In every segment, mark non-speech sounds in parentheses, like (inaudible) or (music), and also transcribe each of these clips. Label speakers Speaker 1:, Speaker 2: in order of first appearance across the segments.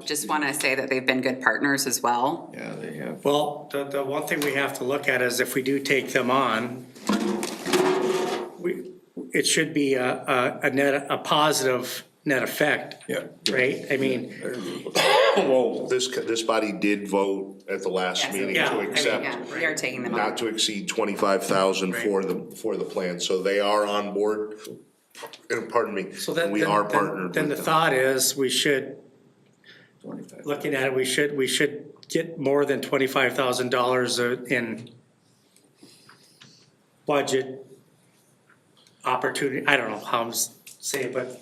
Speaker 1: just wanna say that they've been good partners as well.
Speaker 2: Yeah, they have.
Speaker 3: Well, the, the one thing we have to look at is if we do take them on, we, it should be a, a, a net, a positive net effect,
Speaker 2: Yeah.
Speaker 3: right? I mean,
Speaker 4: Well, this, co- this body did vote at the last
Speaker 1: Yes.
Speaker 4: meeting
Speaker 3: Yeah, I
Speaker 4: to
Speaker 3: mean,
Speaker 1: Yeah,
Speaker 4: accept
Speaker 1: we are taking them on.
Speaker 4: not to exceed twenty-five thousand for the, for the plan, so they are on board. And pardon me,
Speaker 3: so then.
Speaker 4: we
Speaker 3: then-
Speaker 4: are
Speaker 3: then-
Speaker 4: partnered
Speaker 3: Then the
Speaker 4: with them.
Speaker 3: thought is, we should,
Speaker 2: 25.
Speaker 3: looking at it, we should, we should get more than twenty-five thousand dollars in budget opportunity, I don't know how I'm s- saying, but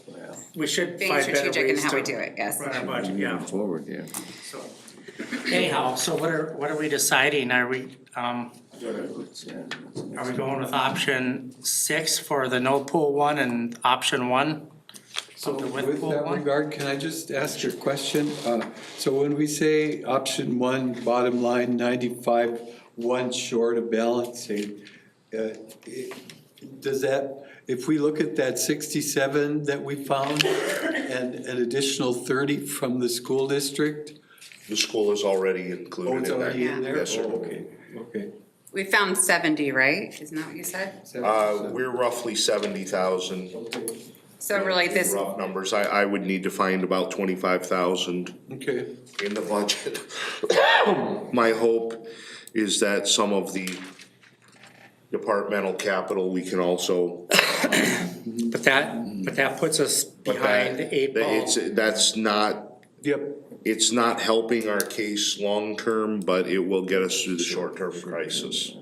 Speaker 3: we should
Speaker 1: Being
Speaker 3: find better
Speaker 1: strategic in
Speaker 3: ways
Speaker 1: how we do
Speaker 3: to
Speaker 1: it, yes.
Speaker 3: run our budget, yeah.
Speaker 2: Moving forward, yeah.
Speaker 3: So Anyhow, so what are, what are we deciding? Are we, um, are we going with option six for the no pool one and option one?
Speaker 5: So
Speaker 3: Something with
Speaker 5: with
Speaker 3: pool
Speaker 5: that
Speaker 3: one?
Speaker 5: regard, can I just ask your question? Uh, So when we say option one, bottom line ninety-five, one short of balancing, uh, it- does that, if we look at that sixty-seven that we found and an additional thirty from the school district?
Speaker 4: The school is already included
Speaker 5: Oh,
Speaker 4: in
Speaker 5: it's
Speaker 4: that.
Speaker 5: already in there?
Speaker 4: Yes, sir.
Speaker 5: Oh, Okay, okay.
Speaker 1: We found seventy, right? Isn't that what you said?
Speaker 4: Uh, we're roughly seventy thousand.
Speaker 1: So really this,
Speaker 4: Rough numbers, I, I would need to find about twenty-five thousand
Speaker 5: Okay,
Speaker 4: in the budget. (coughs) My hope is that some of the departmental capital, we can also,
Speaker 3: But that, but that puts us
Speaker 4: but that,
Speaker 3: behind the eight
Speaker 4: that
Speaker 3: ball.
Speaker 4: it's, that's not,
Speaker 5: yep.
Speaker 4: it's not helping our case long-term, but it will get us through the short-term crisis.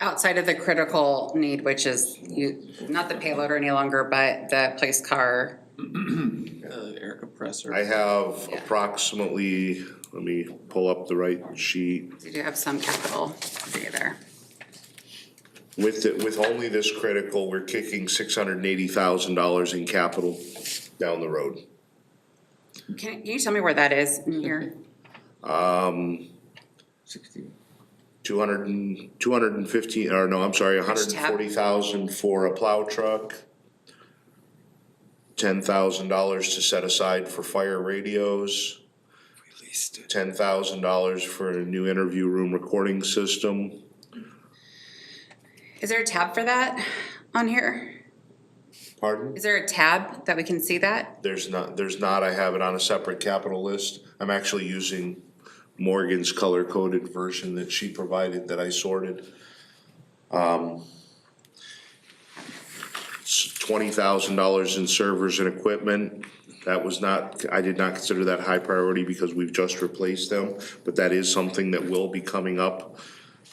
Speaker 1: outside of the critical need, which is you, not the payloader any longer, but the police car.
Speaker 6: air compressor.
Speaker 4: I have approximately, let me pull up the right sheet.
Speaker 1: You do have some capital there.
Speaker 4: With, the- with only this critical, we're kicking six hundred and eighty thousand dollars in capital down the road.
Speaker 1: Can, can you tell me where that is in here?
Speaker 4: Um,
Speaker 2: Sixty.
Speaker 4: Two hundred and, two hundred and fifteen, or no, I'm sorry, hundred and forty thousand for a plow truck. Ten thousand dollars to set aside for fire radios. Ten thousand dollars for a new interview room recording system.
Speaker 1: Is there a tab for that on here?
Speaker 4: Pardon?
Speaker 1: Is there a tab that we can see that?
Speaker 4: There's not, there's not, I have it on a separate capital list. I'm actually using Morgan's color-coded version that she provided that I sorted. Um, It's twenty thousand dollars in servers and equipment. That was not, I did not consider that high priority because we've just replaced them, but that is something that will be coming up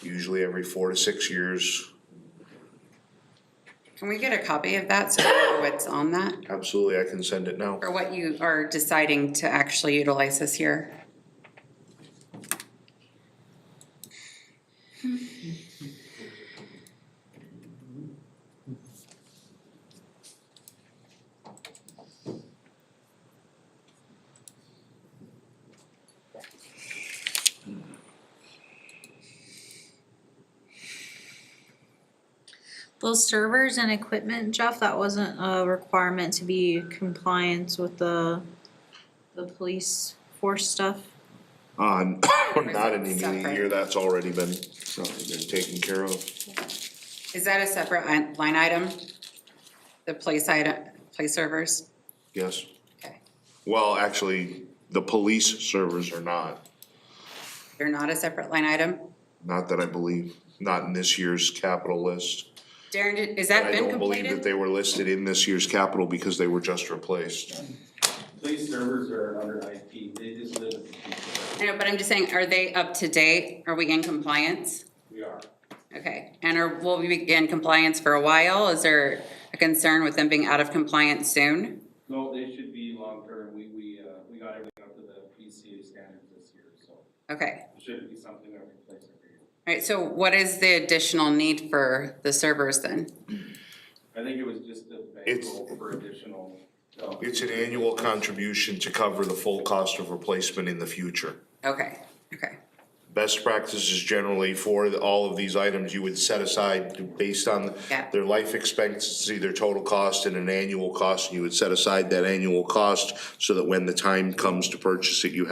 Speaker 4: usually every four to six years.
Speaker 1: Can we get a copy of that so we know what's on that?
Speaker 4: Absolutely, I can send it now.
Speaker 1: Or what you are deciding to actually utilize this year?
Speaker 7: Those servers and equipment, Jeff, that wasn't a requirement to be compliant with the, the police force stuff.
Speaker 4: On, (coughs) not in the immediate year,
Speaker 1: Separate.
Speaker 4: that's already been, uh, been taken care of.
Speaker 1: Is that a separate i- line item? The place item, place servers?
Speaker 4: Yes.
Speaker 1: Okay.
Speaker 4: Well, actually, the police servers are not,
Speaker 1: They're not a separate line item?
Speaker 4: not that I believe, not in this year's capital list.
Speaker 1: Darren, did- is that
Speaker 4: I
Speaker 1: been
Speaker 4: don't believe that
Speaker 1: completed?
Speaker 4: they were listed in this year's capital because they were just replaced.
Speaker 6: Police servers are under IP, they just live,
Speaker 1: I know, but I'm just saying, are they up to date? Are we in compliance?
Speaker 6: we are.
Speaker 1: Okay, and are, will we be in compliance for a while? Is there a concern with them being out of compliance soon?
Speaker 6: No, they should be long-term, we, we, uh, we got everything up to the PCA standards this year, so
Speaker 1: Okay,
Speaker 6: it shouldn't be something that we place every year.
Speaker 1: all right, so what is the additional need for the servers then?
Speaker 6: I think it was just a
Speaker 4: It's-
Speaker 6: bankroll for additional, um,
Speaker 4: It's an annual contribution to cover the full cost of replacement in the future.
Speaker 1: Okay, okay.
Speaker 4: best practices generally for the- all of these items, you would set aside based on
Speaker 1: Yeah.
Speaker 4: their life expectancy, their total cost and an annual cost, and you would set aside that annual cost so that when the time comes to purchase it, you have